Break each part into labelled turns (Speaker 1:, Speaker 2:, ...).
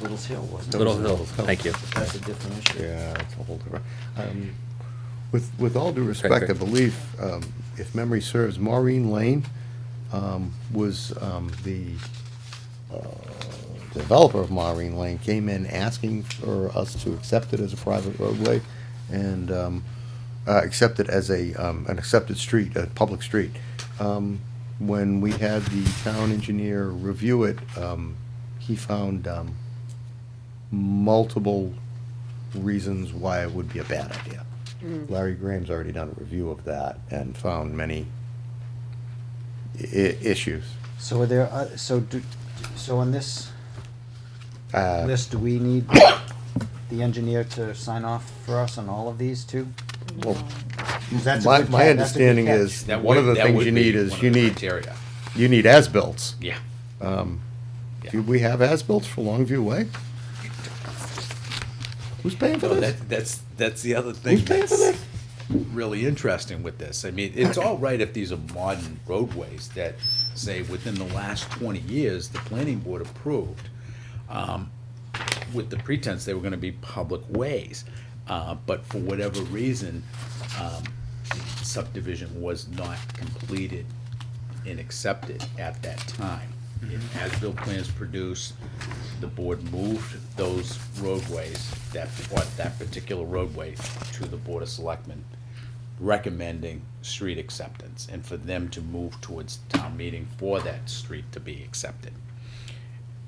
Speaker 1: Little Hill, wasn't it?
Speaker 2: Little Hill, thank you.
Speaker 1: That's a different issue.
Speaker 3: Yeah, it's a whole different, um, with, with all due
Speaker 2: Correct,
Speaker 3: respect, I
Speaker 2: correct.
Speaker 3: believe, um, if memory serves, Maureen Lane, um, was, um, the, uh, developer of Maureen Lane came in asking for us to accept it as a private roadway and, um, uh, accept it as a, um, an accepted street, a public street. Um, when we had the town engineer review it, um, he found, um, multiple reasons why it would be a bad idea.
Speaker 4: Mm-hmm.
Speaker 3: Larry Graham's already done a review of that and found many i- issues.
Speaker 1: So are there, uh, so do, so on this
Speaker 3: Uh,
Speaker 1: list, do we need the engineer to sign off for us on all of these too?
Speaker 3: well,
Speaker 1: 'Cause that's a
Speaker 3: My,
Speaker 1: good
Speaker 3: my
Speaker 1: ca- that's a good
Speaker 3: understanding
Speaker 1: catch.
Speaker 3: is,
Speaker 5: That
Speaker 3: one of the
Speaker 5: would- that
Speaker 3: things
Speaker 5: would
Speaker 3: you
Speaker 5: be
Speaker 3: need
Speaker 5: one
Speaker 3: is
Speaker 5: of
Speaker 3: you
Speaker 5: the
Speaker 3: need,
Speaker 5: criteria.
Speaker 3: you need as-bills.
Speaker 5: Yeah.
Speaker 3: Do we have as-bills for Longview Way? Who's paying for
Speaker 5: No,
Speaker 3: this?
Speaker 5: that, that's, that's the other thing
Speaker 3: Who's paying for
Speaker 5: that's
Speaker 3: this?
Speaker 5: really interesting with this. I mean, it's all right if these are modern roadways that say within the last twenty years, the planning board approved, um, with the pretense they were gonna be public ways. Uh, but for whatever reason, um, subdivision was not completed and accepted at that time. As bill plans produced, the board moved those roadways, that, what, that particular roadway to the Board of Selectmen, recommending street acceptance, and for them to move towards town meeting for that street to be accepted.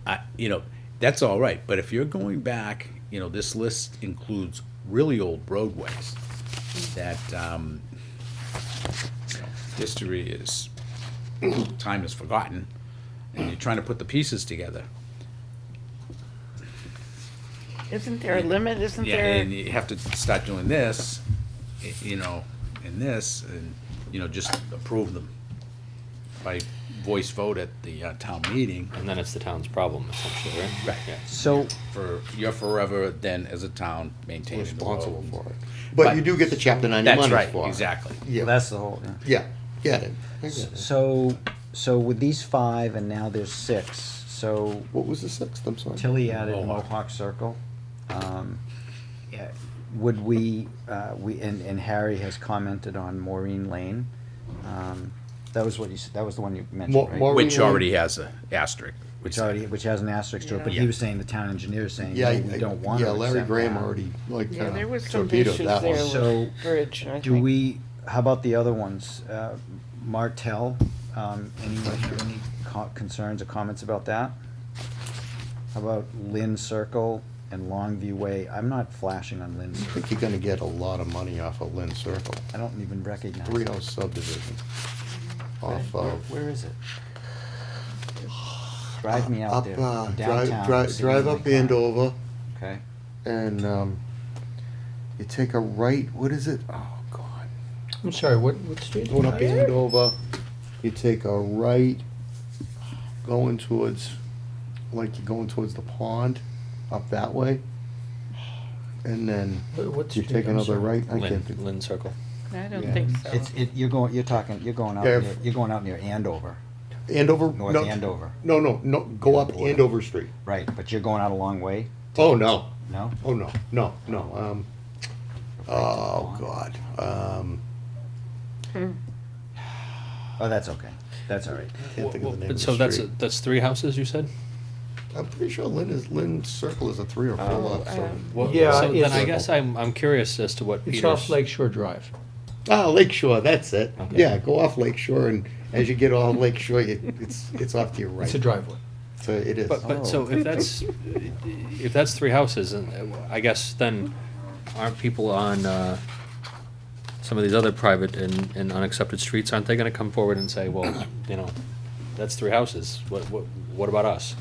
Speaker 5: I, you know, that's all right, but if you're going back, you know, this list includes really old roadways that, um, you know, history is, time is forgotten, and you're trying to put the pieces together.
Speaker 4: Isn't there a limit, isn't
Speaker 5: Yeah,
Speaker 4: there?
Speaker 5: and you have to start doing this, y- you know, and this, and, you know, just approve them by voice vote at the uh, town meeting.
Speaker 2: And then it's the town's problem essentially, right?
Speaker 5: Right.
Speaker 2: Yeah.
Speaker 1: So,
Speaker 5: For, you're forever then, as a town, maintaining the road.
Speaker 3: Responsible for it. But you do get the chapter ninety money
Speaker 5: That's
Speaker 3: for it.
Speaker 5: right, exactly.
Speaker 1: well,
Speaker 3: Yeah,
Speaker 1: that's the whole, yeah.
Speaker 3: yeah, get it. I get it.
Speaker 1: so, so with these five and now there's six, so
Speaker 3: What was the sixth, I'm sorry?
Speaker 1: Tilly added
Speaker 5: Mohawk.
Speaker 1: Mohawk Circle. Um, yeah, Would we, uh, we, and, and Harry has commented on Maureen Lane. Um, That was what you, s- that was the one you
Speaker 3: Mo-
Speaker 1: mentioned, right?
Speaker 3: Maureen-
Speaker 5: Which already has a asterisk.
Speaker 1: Which already, which has an asterisk to it, but he
Speaker 5: Yeah.
Speaker 1: was saying the town engineer is saying,
Speaker 3: Yeah,
Speaker 1: no,
Speaker 3: I-
Speaker 1: we don't want to
Speaker 3: yeah, Larry
Speaker 1: accept
Speaker 3: Graham
Speaker 1: that.
Speaker 3: already like
Speaker 4: Yeah, there
Speaker 3: uh,
Speaker 4: was some
Speaker 3: torpedoed
Speaker 4: issues
Speaker 3: that
Speaker 4: there
Speaker 3: one.
Speaker 1: So,
Speaker 4: with Bridge, I
Speaker 1: Do
Speaker 4: think.
Speaker 1: we, how about the other ones? Uh, Martell, um, anyone have any co- concerns or comments about that? How about Lynn Circle and Longview Way? I'm not flashing on Lynn
Speaker 3: I
Speaker 1: Circle.
Speaker 3: think you're gonna get a lot of money off of Lynn Circle,
Speaker 1: I don't even recognize.
Speaker 3: three
Speaker 1: it.
Speaker 3: house subdivision.
Speaker 1: Where-
Speaker 3: Off
Speaker 1: where-
Speaker 3: of,
Speaker 1: Where is it? Drive me out
Speaker 3: up,
Speaker 1: there,
Speaker 3: uh,
Speaker 1: downtown.
Speaker 3: drive, drive,
Speaker 1: see
Speaker 3: drive
Speaker 1: where
Speaker 3: up
Speaker 1: they are.
Speaker 3: Andover
Speaker 1: Okay,
Speaker 3: and, um, you take a right, what is it? Oh, God.
Speaker 6: I'm sorry, what, what street?
Speaker 3: Going up Andover, you take a right, going towards, like you're going towards the pond, up that way. And then
Speaker 6: What- what
Speaker 3: you
Speaker 6: street?
Speaker 3: take
Speaker 6: I'm
Speaker 3: another
Speaker 6: sorry.
Speaker 3: right, I
Speaker 2: Lynn,
Speaker 3: can't think.
Speaker 2: Lynn Circle.
Speaker 4: I don't think so.
Speaker 1: it's, it, you're going, you're talking, you're going out,
Speaker 3: Yeah,
Speaker 1: near-
Speaker 3: if-
Speaker 1: you're going out near Andover,
Speaker 3: Andover?
Speaker 1: North
Speaker 3: no,
Speaker 1: Andover,
Speaker 3: No, no, no, go up
Speaker 1: Andover.
Speaker 3: Andover Street.
Speaker 1: right, but you're going out a long way,
Speaker 3: Oh, no.
Speaker 1: no?
Speaker 3: Oh, no, no, no. Um, oh, God. Um,
Speaker 1: Oh, that's okay, that's all right.
Speaker 3: can't think of the name of the
Speaker 2: So that's,
Speaker 3: street.
Speaker 2: that's three houses, you said?
Speaker 3: I'm pretty sure Lynn is, Lynn Circle is a three or four
Speaker 4: Oh,
Speaker 3: lot. so-
Speaker 4: um,
Speaker 2: Well,
Speaker 6: Yeah,
Speaker 2: So then
Speaker 6: it's-
Speaker 2: I guess I'm, I'm curious as to what
Speaker 6: It's
Speaker 2: Peter's.
Speaker 6: off Lake Shore Drive.
Speaker 3: Ah, Lake Shore, that's it.
Speaker 2: Okay.
Speaker 3: Yeah, go off Lake Shore and as you get off Lake Shore, it, it's, it's off to your right.
Speaker 6: It's a driveway.
Speaker 3: So it is.
Speaker 2: But, but so if that's, if that's three houses, and uh, I guess then aren't people on, uh, some of these other private and, and unaccepted streets, aren't they gonna come forward and say, well, you know, that's three houses, what, what, what about us?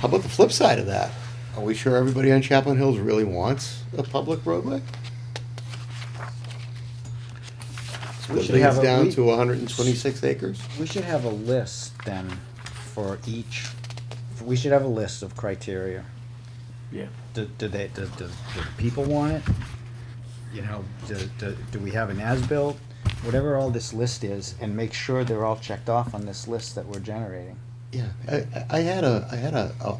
Speaker 3: How about the flip side of that? Are we sure everybody on Chaplain Hills really wants a public roadway?
Speaker 1: We
Speaker 3: Split
Speaker 1: should have
Speaker 3: things
Speaker 1: a-
Speaker 3: down
Speaker 1: we-
Speaker 3: to hundred and twenty-six acres?
Speaker 1: We should have a list then for each, we should have a list of criteria.
Speaker 6: Yeah.
Speaker 1: Do, do they, do, do, do the people want it? You know, do, do, do we have an as-built? Whatever all this list is, and make sure they're all checked off on this list that we're generating.
Speaker 3: Yeah, I, I- I had a, I had a, a